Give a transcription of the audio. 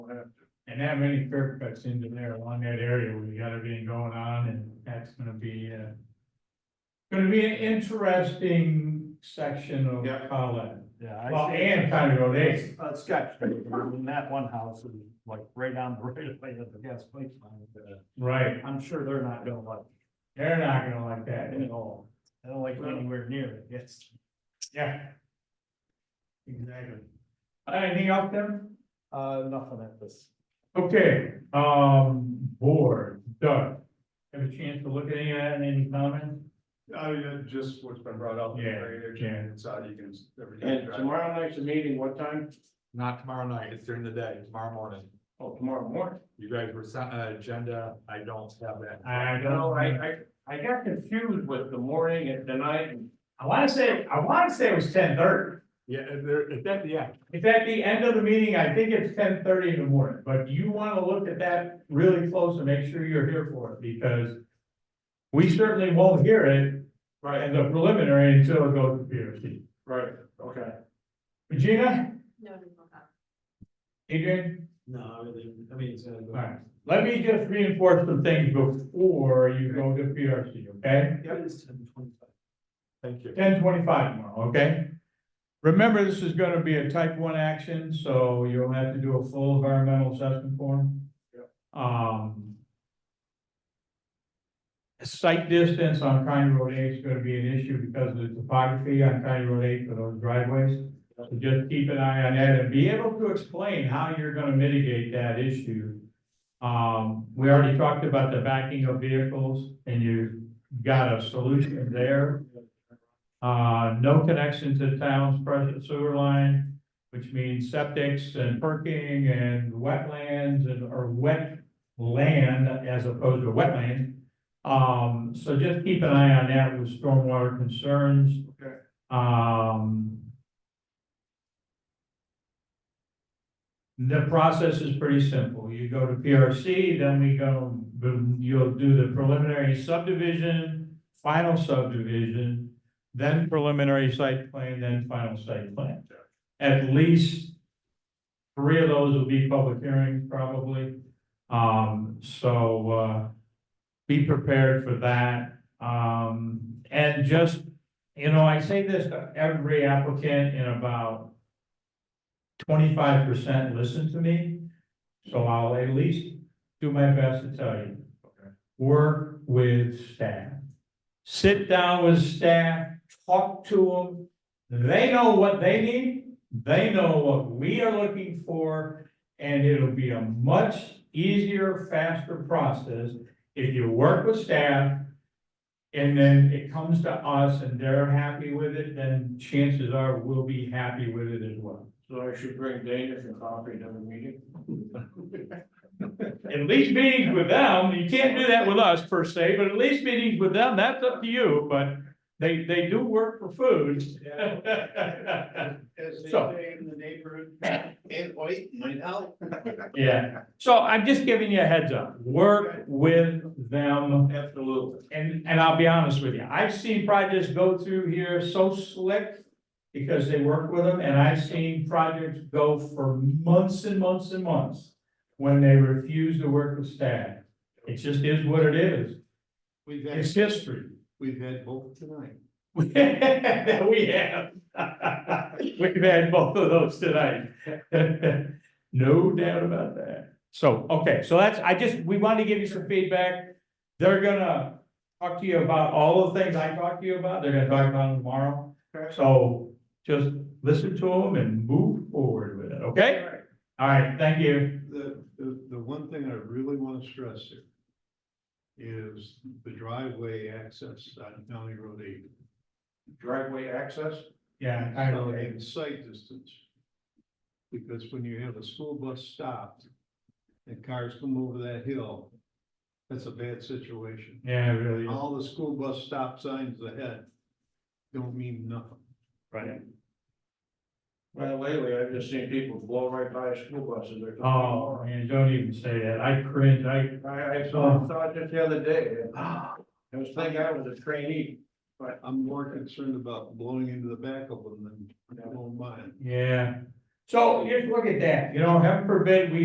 have to. And that many curb cuts into there along that area where you got everything going on and that's gonna be, uh. Gonna be an interesting section of Yeah. Colin. Yeah. I Well, see- and County Road eight. It's, uh, sketch, I mean, that one house is like right on the right of way of the gas pipe line. uh, Right, I'm sure they're not gonna like they're not gonna like that it at at all. all. I don't like it anywhere near it, yes. Yeah. Exactly. Uh, Anything else then? Uh, nothing at this. Okay, um, board, Doug, have a chance to look at any of that and any comments? Oh, yeah, just what's been brought up. Yeah, yeah. Inside, you can. everything And drive. tomorrow night's the meeting, what time? Not tomorrow night, it's during the day, tomorrow morning. Oh, tomorrow morning. You guys were sent uh, an agenda, I don't have that. I No, I, I, I got confused with the morning and the night. I wanna say, I wanna say it was ten thirty. Yeah, and there, it's at the end. It's at the end of the meeting, I think it's ten thirty in the morning, but you wanna look at that really close and make sure you're here for it, because we certainly won't hear it, right, in the preliminary until it goes to P R C. Right, okay. Regina, No, we will not. Adrian? No, I mean, it's uh, gonna Alright, let me just reinforce some things before you go to PRC, okay? it's ten twenty-five. thank you. Ten twenty-five tomorrow, okay? Remember, this is gonna be a type one action, so you'll have to do a full environmental assessment form. Um. Site distance on County Road eight is gonna be an issue because of the topography on County Road eight for those driveways. So just keep an eye on that and be able to explain how you're gonna mitigate that issue. Um, we already talked about the backing of vehicles and you got a solution there. Uh, no connection to the town's present sewer line, which means septics and perking and wetlands and, or wet land as opposed to wetland. Um, so just keep an eye on that with stormwater concerns. Okay. Um. The process is pretty simple. You go to PRC, then we go, you'll do the preliminary subdivision, final subdivision, then preliminary site plan, then final site plan. At least three of those will be public hearings probably. Um, so, uh, be prepared for that. Um, and just, you know, I say this to every applicant in about twenty-five percent listen to me, so I'll at least do my best to tell you. Work with staff. Sit down with staff, talk to them. They know what they need, they know what we are looking for, and it'll be a much easier, faster process if you work with staff. And then it comes to us and they're happy with it, then chances are we'll be happy with it as well. So I should bring Dana some coffee to the meeting. At least meetings with them, you can't do that with us per se, but at least meetings with them, that's up to you, but they, they do work for food. As they say in the neighborhood, and white, might help. Yeah, so I'm just giving you a heads up, work with them Absolutely. And, and I'll be honest with you, I've seen projects go through here so slick because they work with them, and I've seen projects go for months and months and months when they refuse to work with staff. It just is what it is. We've It's history. we've had both tonight. We have. We've had both of those tonight. No doubt about that. So, okay, so that's, I just, we wanted to give you some feedback. They're gonna talk to you about all the things I talked to you about. They're gonna talk about them tomorrow. So just listen to them and move forward with it, okay? All right, thank you. The, the, the one thing I really want to stress here is the driveway access on County Road eight. Driveway access? Yeah. I So, agree. And sight distance. Because when you have a school bus stopped and cars come over that hill, that's a bad situation. Yeah, it really. is. All the school bus stop signs ahead don't mean nothing. Right. Well, lately, I've just seen people blow right by school buses. They're coming Oh, man, don't even say that. I cringe. I, I, I saw, saw it just the other day, and I was thinking I was a trainee. I'm more concerned about blowing into the back of them than blowing mine. yeah. So just look at that, you know, heaven forbid we